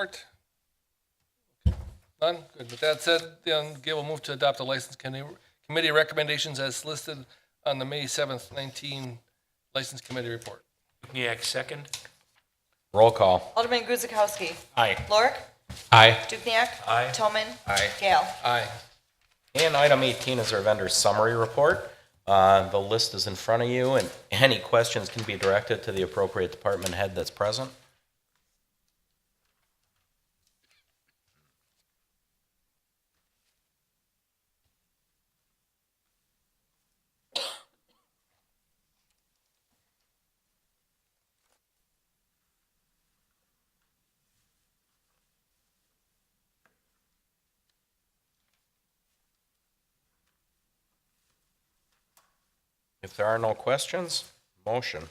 Report? None? Good. With that said, then Gail will move to adopt the license committee committee recommendations as listed on the May 7th, 19 License Committee Report. Dukenyak, second. Roll call. Alderman Guzekowski. Aye. Lorik. Aye. Dukenyak. Aye. Toman. Aye. Gale. Aye. And item 18 is our vendor summary report. Uh, The list is in front of you, and any questions can be directed to the appropriate department head that's present. If there are no questions, motion.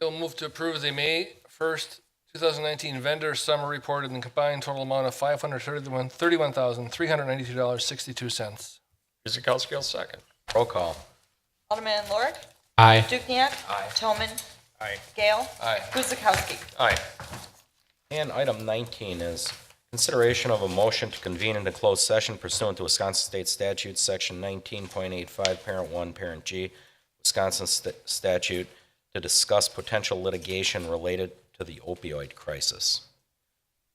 Gail will move to approve the May 1st, 2019 vendor summary report in the combined total amount of $531,392.62. Guzekowski will second. Roll call. Alderman Lorik. Aye. Dukenyak. Aye. Toman. Aye. Gale. Aye. Guzekowski. Aye. And item 19 is consideration of a motion to convene into closed session pursuant to Wisconsin State Statute, Section 19.85, Parent 1, Parent G, Wisconsin St- statute, to discuss potential litigation related to the opioid crisis.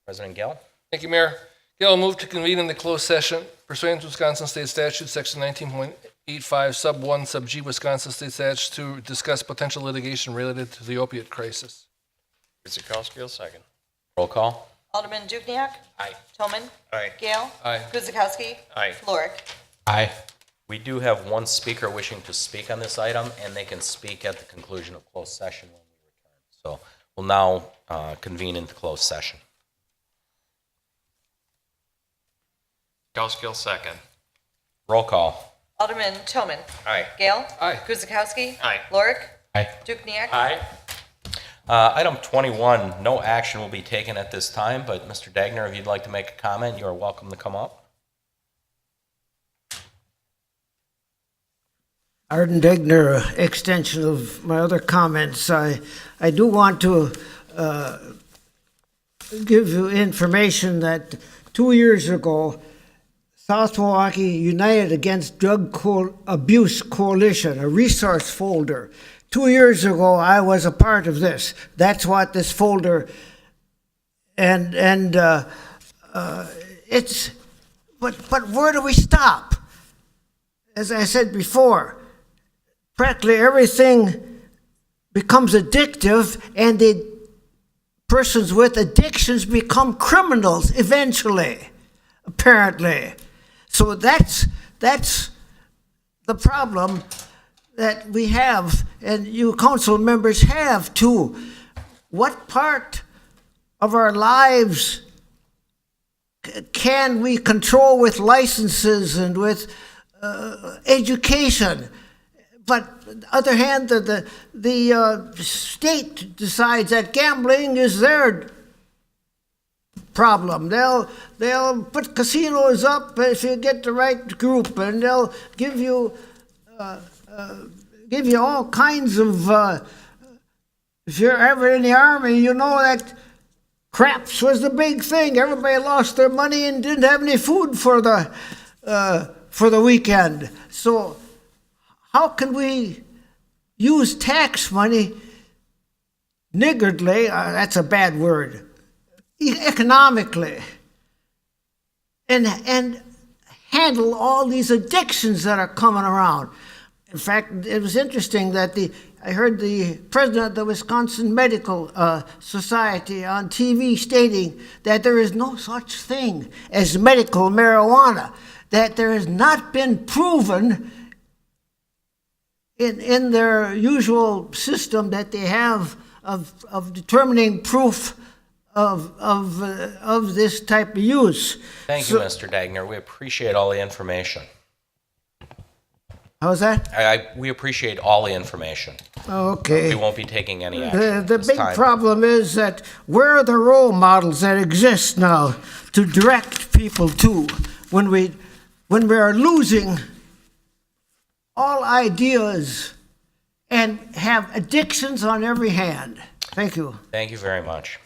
President Gale? Thank you, Mayor. Gail, move to convene in the closed session pursuant to Wisconsin State Statute, Section 19.85, Sub 1, Sub G, Wisconsin State Statutes to discuss potential litigation related to the opiate crisis. Guzekowski will second. Roll call. Alderman Dukenyak. Aye. Toman. Aye. Gale. Aye. Guzekowski. Aye. Lorik. Aye. We do have one speaker wishing to speak on this item, and they can speak at the conclusion of closed session when we return. So we'll now uh, convene into closed session. Guzekowski will second. Roll call. Alderman Toman. Aye. Gale. Aye. Guzekowski. Aye. Lorik. Aye. Dukenyak. Aye. Uh, Item 21, no action will be taken at this time, but Mr. Dagner, if you'd like to make a comment, you are welcome to come up. Arden Degner, uh, extension of my other comments. I, I do want to uh, give you information that two years ago, South Milwaukee United Against Drug Co- Abuse Coalition, a resource folder. Two years ago, I was a part of this. That's what this folder, and and uh, uh, it's, but but where do we stop? As I said before practically everything becomes addictive and the persons with addictions become criminals eventually apparently so that's that's the problem that we have and you council members have too what part of our lives c- can we control with licenses and with uh, education but on the other hand, the the, the uh, state decides that gambling is their problem. They'll they'll put casinos up if you get the right group, and they'll give you uh, uh, give you all kinds of. Uh, if you're ever in the army, you know that craps was the big thing. Everybody lost their money and didn't have any food for the uh, for the weekend. So how can we use tax money niggardly, uh, that's a bad word, e- economically, and, and handle all these addictions that are coming around? In fact, it was interesting that the, I heard the president of the Wisconsin Medical uh, Society on TV stating that there is no such thing as medical marijuana, that there has not been proven in, in their usual system that they have of, of determining proof of, of, uh, of this type of use. Thank you, Mr. Dagner. We appreciate all the information. How's Oh, that? Oh, I, I- we appreciate all the information. We Okay. won't be taking any action The, at the this big time. problem is that where are the role models that exist now to direct people to when we, when we are losing all ideas and have addictions on every hand? Thank you. Thank you very much.